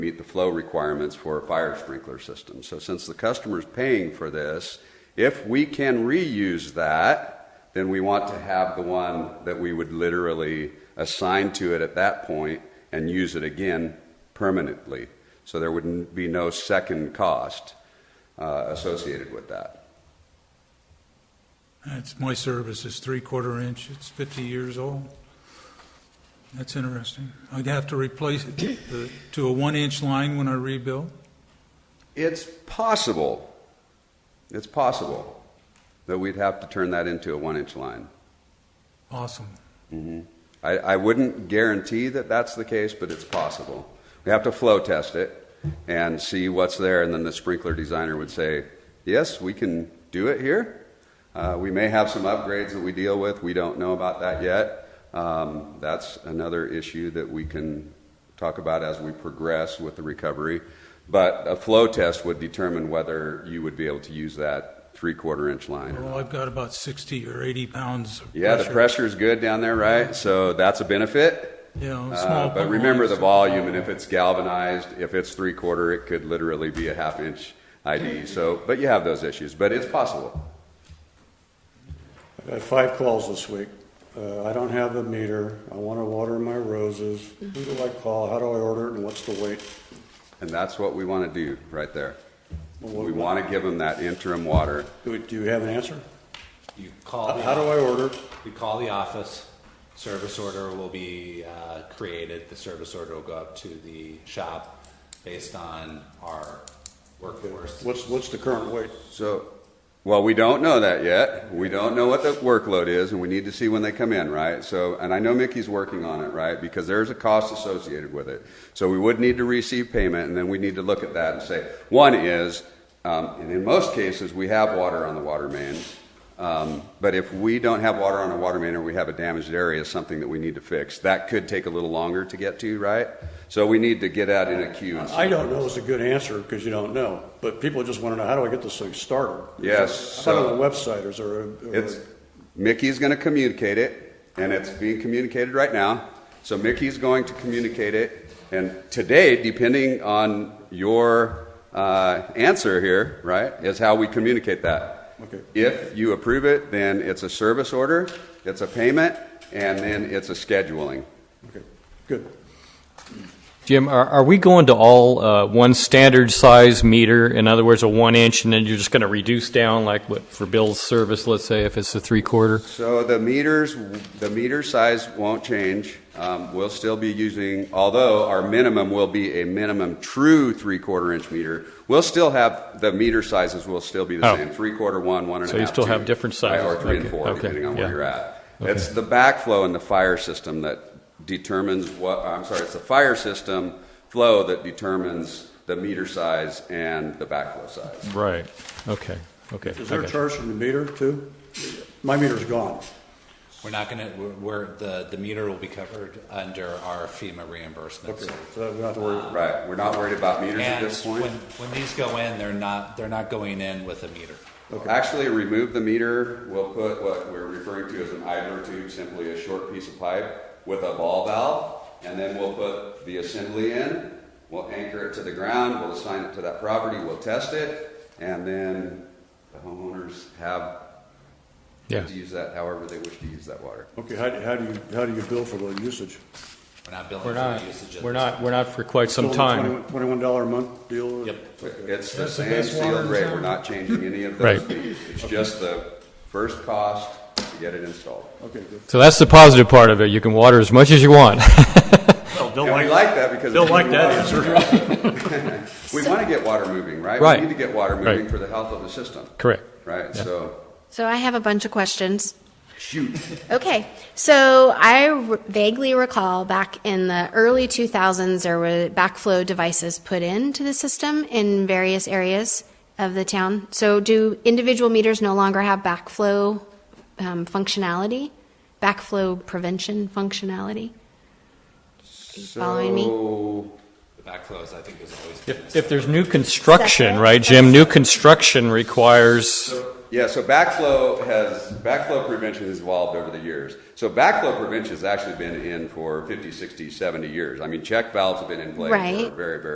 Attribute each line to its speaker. Speaker 1: meet the flow requirements for a fire sprinkler system. So since the customer's paying for this, if we can reuse that, then we want to have the one that we would literally assign to it at that point and use it again permanently. So there wouldn't be no second cost uh, associated with that.
Speaker 2: It's my service is three-quarter inch, it's 50 years old. That's interesting. I'd have to replace it to- to a one-inch line when I rebuild.
Speaker 1: It's possible, it's possible that we'd have to turn that into a one inch line.
Speaker 2: Awesome.
Speaker 1: I, I wouldn't guarantee that that's the case, but it's possible. We have to flow test it and see what's there, and then the sprinkler designer would say, yes, we can do it here. Uh, we may have some upgrades that we deal with. We don't know about that yet. Um, that's another issue that we can talk about as we progress with the recovery. But a flow test would determine whether you would be able to use that three quarter inch line. or not.
Speaker 2: Well, I've got about 60 or 80 pounds of pressure.
Speaker 1: Yeah, the pressure is good down there, right? So that's a benefit.
Speaker 2: You know,
Speaker 1: Uh,
Speaker 2: small.
Speaker 1: but remember the
Speaker 2: pipelines.
Speaker 1: volume, and if it's galvanized, if it's three quarter, it could literally be a half inch ID. So, but you have those issues, but it's possible.
Speaker 3: I got five calls this week. Uh, I don't have a meter. I want to water my roses. Who do I call? How do I order it and what's the wait?
Speaker 1: And that's what we want to do right there.
Speaker 3: Well,
Speaker 1: We want to give them that interim water.
Speaker 3: Do do you have an answer?
Speaker 4: You
Speaker 3: How
Speaker 4: call,
Speaker 3: how do
Speaker 4: the
Speaker 3: I order?
Speaker 4: you call the office, service order will be uh, created, the service order will go up to the shop based on our workforce.
Speaker 3: What's, what's the current wait?
Speaker 1: So, well, we don't know that yet. We don't know what the workload is, and we need to see when they come in, right? So, and I know Mickey's working on it, right? Because there's a cost associated with it. So we would need to receive payment, and then we need to look at that and say, one is, um, and in most cases, we have water on the water main. Um, but if we don't have water on a water main or we have a damaged area, something that we need to fix, that could take a little longer to get to, right? So we need to get out in a queue. And see
Speaker 3: I don't know is a good answer because you don't know, but people just want to know, how do I get this thing started?
Speaker 1: Yes,
Speaker 3: Is there- How
Speaker 1: so-
Speaker 3: on the website, is there a- or-
Speaker 1: It's, Mickey's going to communicate it, and it's being communicated right now. So Mickey's going to communicate it, and today, depending on your uh, answer here, right, is how we communicate that.
Speaker 3: Okay.
Speaker 1: If you approve it, then it's a service order, it's a payment, and then it's a scheduling.
Speaker 3: Okay, good.
Speaker 5: Jim, are, are we going to all uh, one standard size meter? In other words, a one inch, and then you're just going to reduce down, like what for Bill's service, let's say, if it's a three quarter?
Speaker 1: So the meters, the meter size won't change. Um, We'll still be using, although our minimum will be a minimum true three-quarter inch meter, we'll still have, the meter sizes will still be the
Speaker 5: Oh.
Speaker 1: same, three-quarter, one, one and a half.
Speaker 5: So you still have
Speaker 1: two,
Speaker 5: different
Speaker 1: right, Or
Speaker 5: sizes.
Speaker 1: three and
Speaker 5: Okay,
Speaker 1: four,
Speaker 5: okay,
Speaker 1: depending on where
Speaker 5: yeah.
Speaker 1: you're at.
Speaker 5: Okay.
Speaker 1: It's the backflow in the fire system that determines what, I'm sorry, it's the fire system flow that determines the meter size and the backflow size.
Speaker 5: Right. Okay. Okay.
Speaker 3: Is there
Speaker 5: I
Speaker 3: a
Speaker 5: got
Speaker 3: charge from the meter too? My meter's gone.
Speaker 4: We're not gonna, we're- we're, the, the meter will be covered under our FEMA reimbursement.
Speaker 3: Okay,
Speaker 4: so-
Speaker 3: so we don't have to worry.
Speaker 1: Right, we're not worried about meters at
Speaker 4: And
Speaker 1: this point.
Speaker 4: when, when these go in, they're not, they're not going in with a meter.
Speaker 1: Actually, remove the meter, we'll put what we're referring to as an idler tube, simply a short piece of pipe with a ball valve, and then we'll put the assembly in, we'll anchor it to the ground, we'll assign it to that property, we'll test it, and then the homeowners have
Speaker 5: Yeah.
Speaker 1: to use that however they wish to use that water.
Speaker 3: Okay, how, do- how do you, how do you bill for the usage?
Speaker 4: We're not billing
Speaker 5: We're
Speaker 4: for the
Speaker 5: not.
Speaker 4: usage of
Speaker 5: We're
Speaker 4: this.
Speaker 5: not. We're not for quite some
Speaker 3: Still the
Speaker 5: time.
Speaker 3: 21 Twenty-one dollar a month deal?
Speaker 4: Yep.
Speaker 1: It's the
Speaker 2: That's the
Speaker 1: same
Speaker 2: best water
Speaker 1: sealed
Speaker 2: in
Speaker 1: rate,
Speaker 2: town.
Speaker 1: we're not changing any of those
Speaker 5: Right.
Speaker 1: fees. It's just the first cost to get it installed.
Speaker 3: Okay, good.
Speaker 5: So that's the positive part of it. You can water as much as you want.
Speaker 3: Don't
Speaker 1: And we like that because.
Speaker 3: Don't
Speaker 1: it's
Speaker 3: like
Speaker 1: moving
Speaker 3: that
Speaker 1: water.
Speaker 3: answer.
Speaker 1: We want to get water moving, right?
Speaker 5: Right.
Speaker 1: We need to get water moving
Speaker 5: Right.
Speaker 1: for the health of the system.
Speaker 5: Correct.
Speaker 1: Right, so,
Speaker 6: So I have a bunch of questions.
Speaker 1: shoot.
Speaker 6: Okay, so I r- vaguely recall back in the early 2000s, there were backflow devices put into the system in various areas of the town. So do individual meters no longer have backflow um, functionality, backflow prevention functionality? following me?
Speaker 1: So,
Speaker 4: The backflows, I think, is always.
Speaker 5: If, if there's new construction,
Speaker 6: Separate.
Speaker 5: right, Jim? New construction requires.
Speaker 1: Yeah, so backflow has, backflow prevention has evolved over the years. So backflow prevention has actually been in for 50, 60, 70 years. I mean, check valves have been in place for a
Speaker 6: Right.
Speaker 1: very, very